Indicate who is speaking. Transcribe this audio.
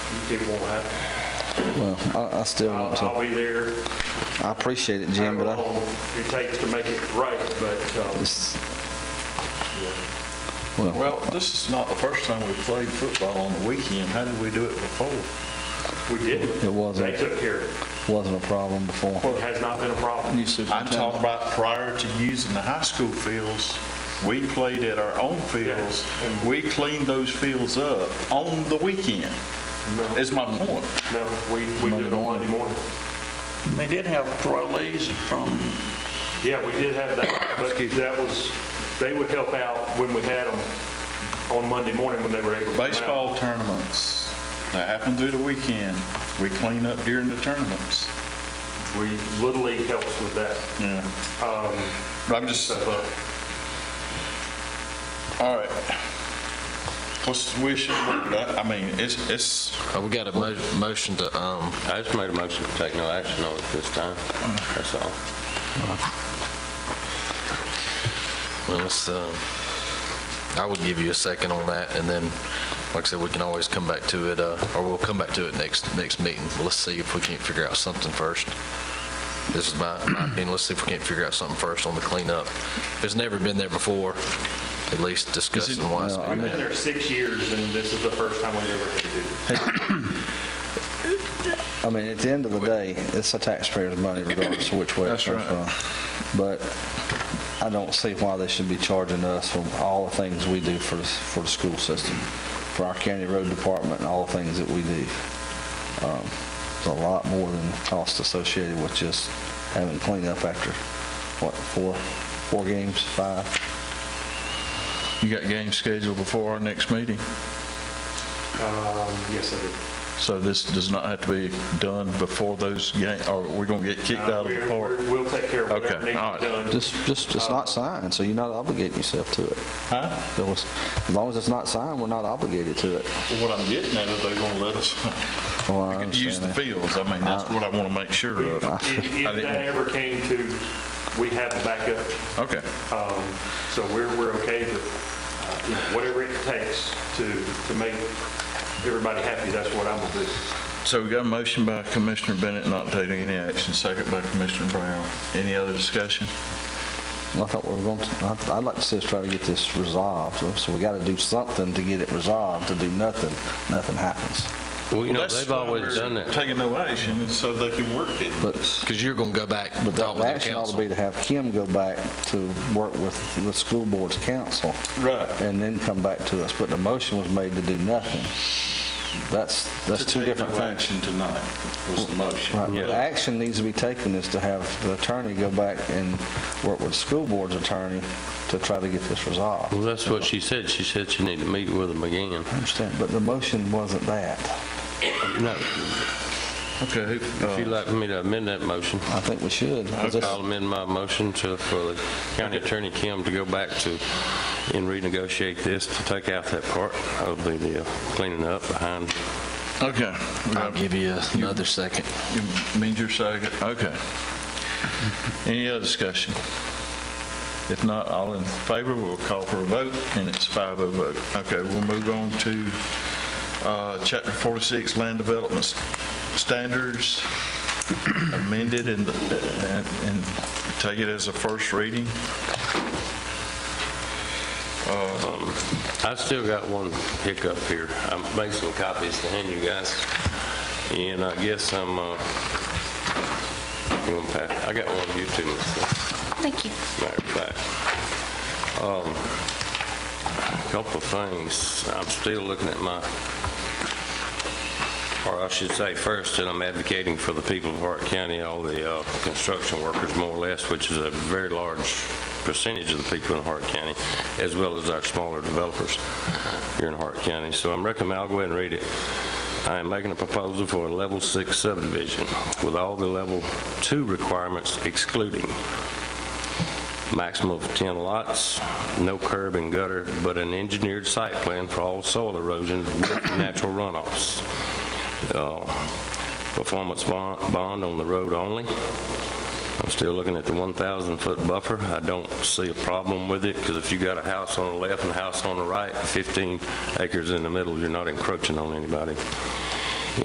Speaker 1: still want that.
Speaker 2: Well, I, I still want
Speaker 1: I'll
Speaker 2: to.
Speaker 1: I'll be there.
Speaker 2: I appreciate it, Jim, but
Speaker 1: however
Speaker 2: I,
Speaker 1: long It takes to make it right, but, um,
Speaker 2: it's,
Speaker 3: Well, this is not the first time we've played football on the weekend. How did we do it before?
Speaker 1: we did.
Speaker 2: It uh, wasn't.
Speaker 1: They took care of
Speaker 2: wasn't a problem before.
Speaker 1: it. It has not been a problem.
Speaker 3: I'm talking about prior to using the high school fields. We played at our own fields. and We cleaned those fields up on the weekend, is my point.
Speaker 1: No, we, we did it on Monday morning.
Speaker 4: They did have parolees from,
Speaker 1: Yeah, we did have that, but that was, they would help out when we had them on Monday morning when they were able to. come out.
Speaker 3: Baseball tournaments that happen through the weekend, we clean up during the tournaments.
Speaker 1: We, Little League helps with that.
Speaker 3: Yeah. I'm just,
Speaker 1: stuff up.
Speaker 3: all right. What's the wish of the board? I I mean, it's, it's,
Speaker 5: Oh, We got a mo- motion to, um,
Speaker 6: I just made a motion to take no action on it this time. That's all.
Speaker 5: well, let's, um, I would give you a second on that, and then, like I said, we can always come back to it, uh, or we'll come back to it next, next meeting. Let's see if we can't figure out something first. This is my, my opinion, let's see if we can't figure out something first on the cleanup. It's never been there before, at least discussing wise.
Speaker 2: well, I mean-
Speaker 1: Been there six years and this is the first time we've ever had to do it.
Speaker 2: I mean, at the end of the day, it's a taxpayer's money regardless of which way it comes from. But I don't see why they should be charging us for all the things we do for, the- for the school system, for our county road department and all the things that we do. Um, It's a lot more than cost associated with just having cleanup after, what, four, four games, five?
Speaker 7: You got games scheduled before our next meeting,
Speaker 1: Um, Yes, I did.
Speaker 7: so this does not have to be done before those games, or we're going to get kicked out of the
Speaker 1: We're-
Speaker 7: park.
Speaker 1: we're- We'll take care of
Speaker 7: Okay,
Speaker 1: whatever needs
Speaker 7: all
Speaker 1: to
Speaker 7: right.
Speaker 1: be done.
Speaker 2: Just, just, it's not signed, so you're not obligating yourself to it.
Speaker 3: huh?
Speaker 2: So it's- As long as it's not signed, we're not obligated to it.
Speaker 3: Well, What I'm getting at is they're going to let us
Speaker 2: Well, I
Speaker 3: use
Speaker 2: understand
Speaker 3: the
Speaker 2: that.
Speaker 3: fields. I mean, that's what I want to make sure
Speaker 1: If
Speaker 3: of. I
Speaker 1: if that
Speaker 3: didn't-
Speaker 1: ever came to, we have a backup,
Speaker 3: Okay.
Speaker 1: um, so we're, we're okay with uh, you know, whatever it takes to, to make everybody happy, that's what I'm gonna do.
Speaker 3: So we got a motion by Commissioner Bennett not taking any action, second by Commissioner Brown. Any other discussion?
Speaker 2: I thought we were going to, I'd- I'd like to see us try to get this resolved, so- so we got to do something to get it resolved, to do nothing, nothing happens.
Speaker 6: Well, you know,
Speaker 3: That's
Speaker 6: they've
Speaker 3: why
Speaker 6: always
Speaker 3: we're
Speaker 6: done that.
Speaker 3: Taking no action is so they can work it.
Speaker 2: But
Speaker 5: Because you're going to go back and
Speaker 2: but
Speaker 5: talk
Speaker 2: the
Speaker 5: with the
Speaker 2: action ought to
Speaker 5: council.
Speaker 2: be to have Kim go back to work with the school board's council.
Speaker 3: Right.
Speaker 2: And then come back to us, but the motion was made to do nothing. That's, that's
Speaker 3: To
Speaker 2: two
Speaker 3: take
Speaker 2: different
Speaker 3: no
Speaker 2: things.
Speaker 3: Action tonight was the
Speaker 2: Right,
Speaker 3: motion.
Speaker 2: but The action needs to be taken is to have the attorney go back and work with the school board's attorney to try to get this resolved.
Speaker 6: Well, that's what she said. She said she needed to meet with them again.
Speaker 2: I understand, but the motion wasn't that.
Speaker 6: No,
Speaker 3: Okay. who-
Speaker 6: if you'd like me to amend that motion,
Speaker 2: I think we should. 'cause this-
Speaker 6: I'll amend my motion to, for the county attorney Kim to go back to and renegotiate this to take out that part of the the uh, cleaning up behind
Speaker 3: Okay. we
Speaker 5: I'll
Speaker 3: got-
Speaker 5: give you another second.
Speaker 3: You means your second? Okay. Any other discussion? If not, all in favor, we'll call for a vote, and it's 5-0 vote. Okay, we'll move on to uh, Chapter 46, Land Development S- Standards amended and, and and take it as a first reading.
Speaker 6: I still got one hiccup here. I made some copies to hand you guys, and I guess I'm, uh, you want to pass? I got one of you two.
Speaker 8: Thank you.
Speaker 6: Matter of fact, um, a couple of things. I'm still looking at my, or I should say first, that I'm advocating for the people of Hart County, all the uh, construction workers more or less, which is a very large percentage of the people in Hart County, as well as our smaller developers here in Hart County. So I'm recommend, I'll go ahead and read it. I am making a proposal for a level six subdivision with all the level two requirements excluding maximum of 10 lots, no curb and gutter, but an engineered site plan for all soil erosion with natural runoffs. Uh, Performance bond bond on the road only. I'm still looking at the 1,000-foot buffer. I don't see a problem with it, because if you got a house on the left and a house on the right, 15 acres in the middle, you're not encroaching on anybody.